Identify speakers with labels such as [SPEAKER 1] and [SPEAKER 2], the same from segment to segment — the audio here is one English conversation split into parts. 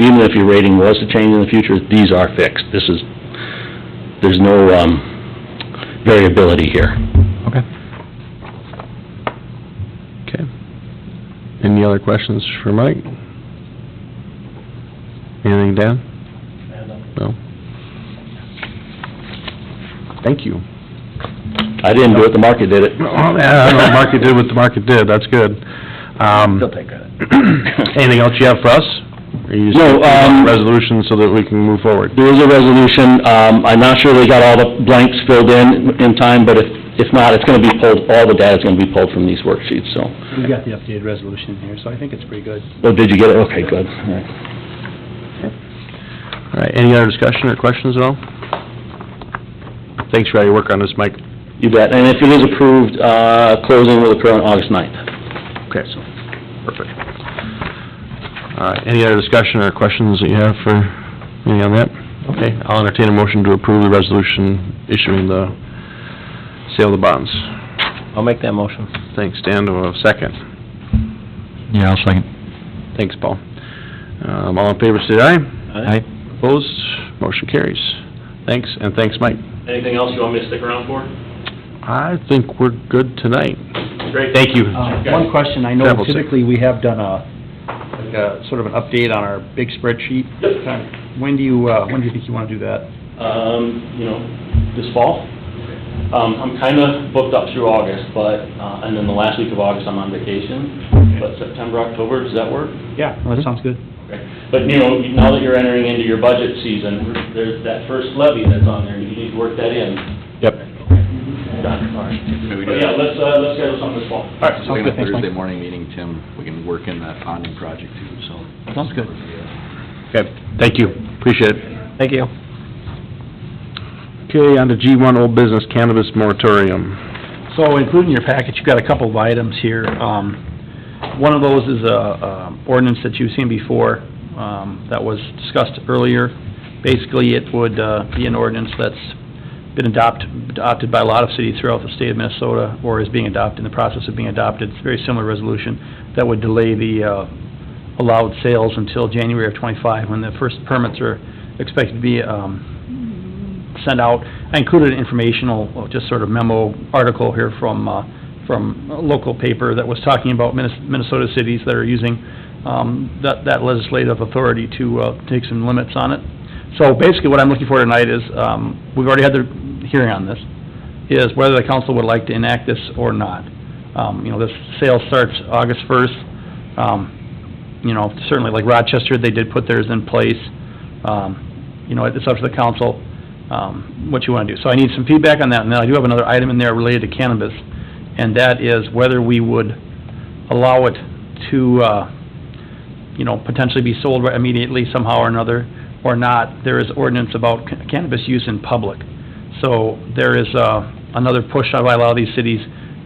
[SPEAKER 1] even if your rating was to change in the future, these are fixed. This is, there's no, um, variability here.
[SPEAKER 2] Okay. Okay. Any other questions for Mike? Anything, Dan? No? Thank you.
[SPEAKER 1] I didn't do it, the market did it.
[SPEAKER 2] Well, yeah, I don't know, the market did what the market did, that's good. Um,
[SPEAKER 1] take credit.
[SPEAKER 2] anything else you have for us? Or you just-
[SPEAKER 1] No, um-
[SPEAKER 2] Resolution so that we can move forward.
[SPEAKER 1] There is a resolution, um, I'm not sure they got all the blanks filled in in time, but if, if not, it's gonna be pulled, all the data's gonna be pulled from these worksheets, so.
[SPEAKER 3] We've got the updated resolution here, so I think it's pretty good.
[SPEAKER 1] Oh, did you get it? Okay, good, all right.
[SPEAKER 2] All right, any other discussion or questions at all? Thanks for all your work on this, Mike.
[SPEAKER 1] You bet, and if it is approved, uh, closing will occur on August ninth.
[SPEAKER 2] Okay, so, perfect. All right, any other discussion or questions that you have for, any on that? Okay, I'll entertain a motion to approve the resolution issuing the sale of the bonds.
[SPEAKER 3] I'll make that motion.
[SPEAKER 2] Thanks, Dan, to a second.
[SPEAKER 4] Yeah, I'll second.
[SPEAKER 2] Thanks, Paul. Um, all in favor, say aye.
[SPEAKER 4] Aye.
[SPEAKER 2] Opposed, motion carries. Thanks, and thanks, Mike.
[SPEAKER 5] Anything else you want me to stick around for?
[SPEAKER 2] I think we're good tonight.
[SPEAKER 5] Great.
[SPEAKER 2] Thank you.
[SPEAKER 3] Uh, Um, One question, I know
[SPEAKER 2] Devil's-
[SPEAKER 3] typically we have done a, like a, sort of an update on our big spreadsheet.
[SPEAKER 5] Yep.
[SPEAKER 3] Kind of- When do you, uh, when do you think you want to do that?
[SPEAKER 5] Um, you know, this fall. Um, I'm kinda booked up through August, but, uh, and then the last week of August, I'm on vacation. But September, October, does that work?
[SPEAKER 3] Yeah, well, that sounds good.
[SPEAKER 5] Okay. But, you know, now that you're entering into your budget season, there's that first levy that's on there, you need to work that in.
[SPEAKER 2] Yep.
[SPEAKER 5] Done, all right.
[SPEAKER 6] Maybe we do
[SPEAKER 5] But yeah,
[SPEAKER 6] that,
[SPEAKER 5] let's, uh, let's schedule something this fall.
[SPEAKER 3] All right,
[SPEAKER 6] so
[SPEAKER 3] sounds
[SPEAKER 6] in a
[SPEAKER 3] good, thanks, Mike.
[SPEAKER 6] Thursday morning meeting, Tim, we can work in that bonding project too, so.
[SPEAKER 3] Sounds good.
[SPEAKER 2] Okay, thank you, appreciate it.
[SPEAKER 3] Thank you.
[SPEAKER 2] Okay, on to G one, old business cannabis moratorium.
[SPEAKER 3] So including your package, you've got a couple of items here. Um, One of those is a um, ordinance that you've seen before um, that was discussed earlier. Basically, it would uh, be an ordinance that's been adopt- adopted by a lot of cities throughout the state of Minnesota or is being adopted, in the process of being adopted. It's a very similar resolution that would delay the uh, allowed sales until January of '25, when the first permits are expected to be um, sent out. I included an informational, uh, just sort of memo article here from, uh, from a local paper that was talking about Minnes- Minnesota cities that are using um, that that legislative authority to uh, take some limits on it. So basically, what I'm looking for tonight is, um, we've already had the hearing on this, is whether the council would like to enact this or not. Um, You know, this sale starts August 1st. Um, You know, certainly like Rochester, they did put theirs in place. Um, You know, it's up to the council um, what you want to do. So I need some feedback on that, and then I do have another item in there related to cannabis, and that is whether we would allow it to, uh, you know, potentially be sold immediately somehow or another, or not. There is ordinance about ca- cannabis use in public. So there is uh, another push by a lot of these cities,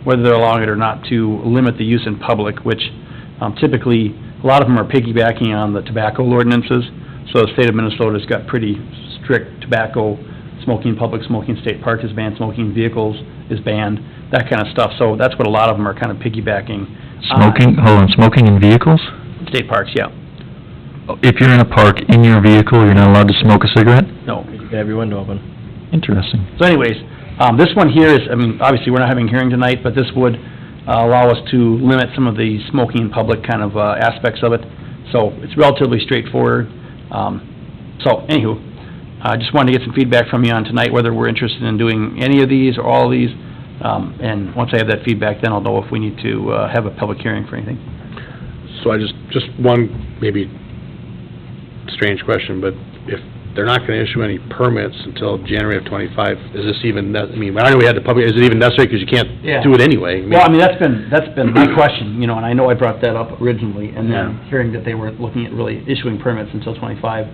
[SPEAKER 3] whether they're allowing it or not, to limit the use in public, which um, typically, a lot of them are piggybacking on the tobacco ordinances. So the state of Minnesota's got pretty strict tobacco, smoking in public, smoking in state parks is banned, smoking in vehicles is banned, that kind of stuff. So that's what a lot of them are kind of piggybacking. on.
[SPEAKER 4] Smoking, hold on, smoking in vehicles? Oh,
[SPEAKER 3] State parks, yeah.
[SPEAKER 4] If you're in a park, in your vehicle, you're not allowed to smoke a cigarette?
[SPEAKER 3] No.
[SPEAKER 4] Interesting.
[SPEAKER 3] So anyways, um, this one here is, I mean, obviously, we're not having a hearing tonight, but this would uh, allow us to limit some of the smoking in public kind of uh, aspects of it. So it's relatively straightforward. Um, So anywho, I just wanted to get some feedback from you on tonight, whether we're interested in doing any of these or all of these. Um, And once I have that feedback, then I'll know if we need to uh, have a public hearing for anything.
[SPEAKER 2] So I just, just one maybe strange question, but if they're not gonna issue any permits until January of twenty-five, is this even, ne- I mean, I know we had the public, is it even necessary, because you
[SPEAKER 3] Yeah.
[SPEAKER 2] can't do it anyway? I mean-
[SPEAKER 3] Well, I mean, that's been, that's been my question, you know, and I know I brought that up originally, and then hearing that they weren't looking at really issuing permits until twenty-five,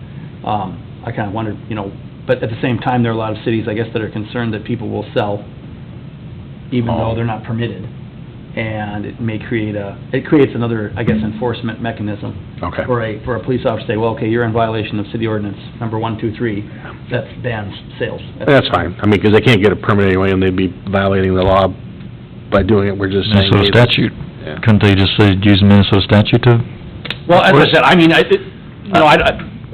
[SPEAKER 3] um, I kinda wondered, you know, but at the same time, there are a lot of cities, I guess, that are concerned that people will sell even though they're not permitted, and it may create a, it creates another, I guess, enforcement mechanism
[SPEAKER 2] Okay,
[SPEAKER 3] for a, for a police officer to say, well, okay, you're in violation of city ordinance number one, two, three, that bans sales.
[SPEAKER 2] that's fine, I mean, because they can't get a permit anyway, and they'd be violating the law by doing it, we're just saying.
[SPEAKER 4] Minnesota
[SPEAKER 2] they-
[SPEAKER 4] statute.
[SPEAKER 2] Yeah.
[SPEAKER 4] Couldn't they just say, use Minnesota statute to?
[SPEAKER 3] Well, as I
[SPEAKER 4] Or-
[SPEAKER 3] said, I mean, I, it- no, I, I-